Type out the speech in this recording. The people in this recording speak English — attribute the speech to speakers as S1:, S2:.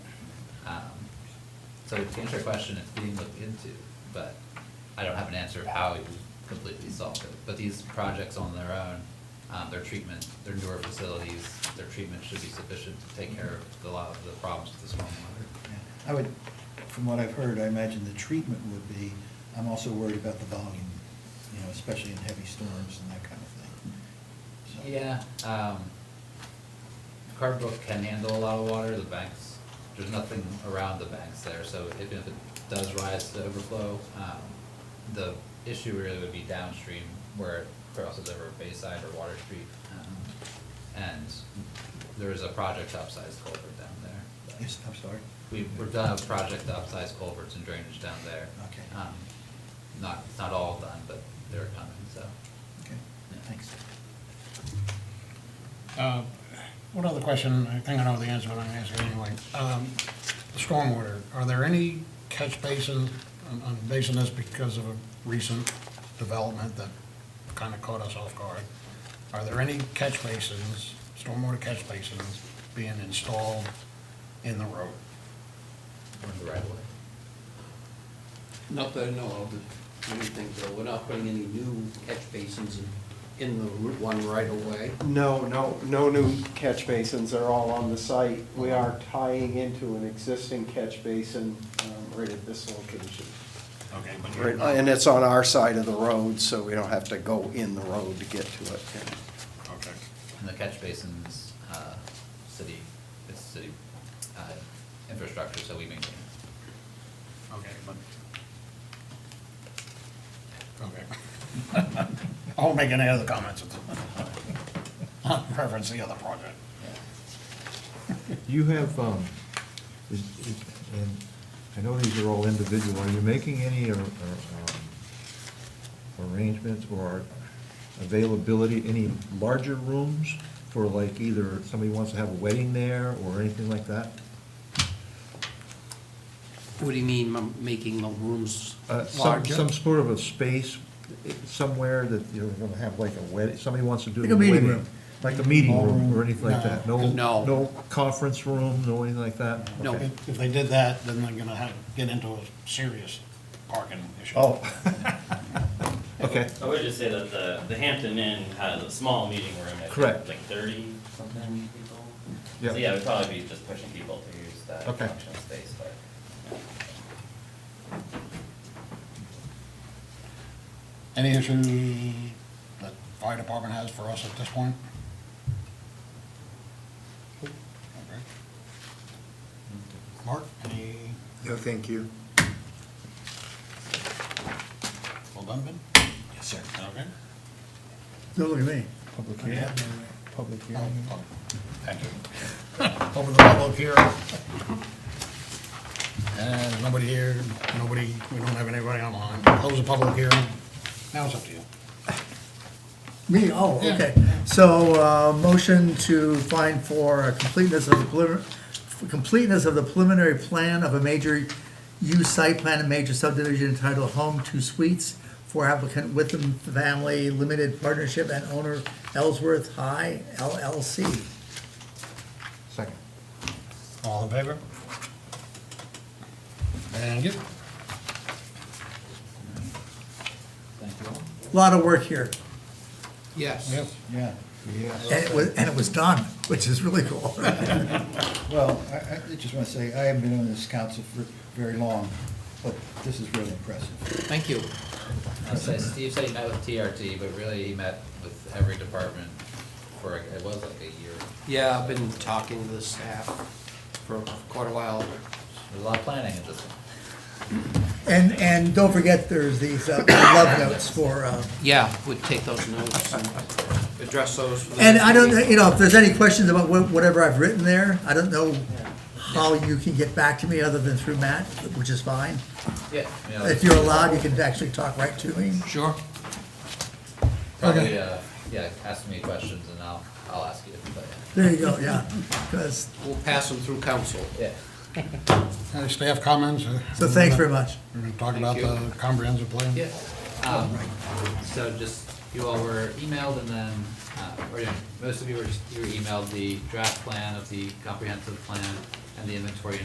S1: Um, So to answer your question, it's being looked into, but I don't have an answer of how you completely solve it. But these projects on their own, um, their treatment, their newer facilities, their treatment should be sufficient to take care of the lot of the problems with the stormwater.
S2: Yeah. I would, from what I've heard, I imagine the treatment would be, I'm also worried about the volume, you know, especially in heavy storms and that kind of thing. So-
S1: Yeah, um, Cardbrook can handle a lot of water, the banks, there's nothing around the banks there, so if, if it does rise to overflow, um, the issue really would be downstream where it crosses over Bayside or Water Street. um, And there is a project to upsize culvert down there.
S2: Yes, I'm sorry.
S1: We, we've done a project to upsize culverts and drainage down there.
S2: Okay.
S1: Um, Not, not all done, but they're coming, so.
S2: Okay, thanks.
S3: Uh, One other question, I think I know the answer, but I'm gonna ask it anyway. Um, Stormwater, are there any catch um, basins? I'm- I'm basing this because of a recent development that kind of caught us off guard. Are there any catch basins, stormwater catch basins being installed in the road?
S1: We're in the right way.
S4: Not that I know of, but anything, though, we're not putting any new catch basins in, in the Route One right away.
S5: No, no, no new catch basins are all on the site. We are tying into an existing catch basin um, right at this location.
S3: Okay, but you're
S5: Right,
S3: not-
S5: Uh, And it's on our side of the road, so we don't have to go in the road to get to it.
S3: Okay.
S1: And the catch basins, uh, city, it's city, uh, infrastructure, so we maintain.
S3: Okay, but. Okay. I won't make any other comments. I'll Reference the other project.
S6: You have, um, is, is, and I know these are all individual, are you making any, or, or, um, arrangements or availability, any larger rooms for like either somebody wants to have a wedding there or anything like that?
S4: What do you mean, m- making the rooms
S6: Uh, some,
S4: larger?
S6: some sort of a space eh, somewhere that you're gonna have like a wedding, somebody wants to do
S3: Like
S6: the
S3: a meeting
S6: wedding.
S3: room.
S6: Like a meeting room or
S3: Ballroom.
S6: anything like that? No,
S3: No.
S4: No.
S6: no conference room, no anything like that?
S4: No.
S6: Okay.
S3: If if they did that, then they're gonna have, get into a serious parking issue.
S6: Oh. Okay.
S7: I would just say that the, the Hampton Inn has a small meeting room, I
S6: Correct.
S7: think, like thirty something people.
S6: Yeah.
S7: So yeah, we'd probably be just pushing people to use that
S6: Okay.
S7: function space, but.
S3: Any issues that fire department has for us at this point? Okay. Mark, any,
S5: No, thank you.
S3: well done, Ben? Yes, sir. Okay.
S8: Don't look at me.
S6: Public
S8: Yeah.
S6: Public
S3: Oh,
S6: hearing.
S3: oh, Thank you. Over the public here. And nobody here, nobody, we don't have anybody online. Close the public hearing. Now it's up to you.
S8: Me, oh, okay. So, uh, motion to find for a completeness of the preliminary, completeness of the preliminary plan of a major use site plan and major subdivision entitled Home Two Suites for applicant Witham Family Limited Partnership and owner Ellsworth High LLC.
S6: Second.
S3: All in favor? Thank you.
S1: Thank you all.
S8: Lot of work here,
S4: Yes.
S3: Yes.
S2: Yeah,
S8: and it was, and it was done, which is really cool.
S2: well, I, I I just want to say, I haven't been on this council for very long, but this is really impressive.
S4: Thank you.
S1: I'd say Steve said he met with TRT, but really he met with every department for, it was like a year.
S4: Yeah, I've been talking to the staff for quite a while.
S1: There's a lot of planning in this one.
S8: And, and don't forget, there's these uh, love notes for, uh,
S4: Yeah, would take those notes and address those. with the-
S8: And I don't, know, you know, if there's any questions about wha- whatever I've written there, I don't know how you can get back to me other than through Matt, which is fine.
S1: Yeah. you know,
S8: If you're allowed, you can actually talk right to me.
S4: Sure.
S1: Probably, uh, yeah, ask me questions and I'll, I'll ask you, but,
S8: There you go, yeah. 'Cause-
S4: We'll pass them through council.
S1: yeah.
S3: Any staff comments?
S8: so thanks very much.
S3: We're gonna talk about the comprehensive plan?
S1: Yeah, um, so just, you all were emailed and then, uh, or yeah, most of you were, you were emailed the draft plan of the comprehensive plan and the inventory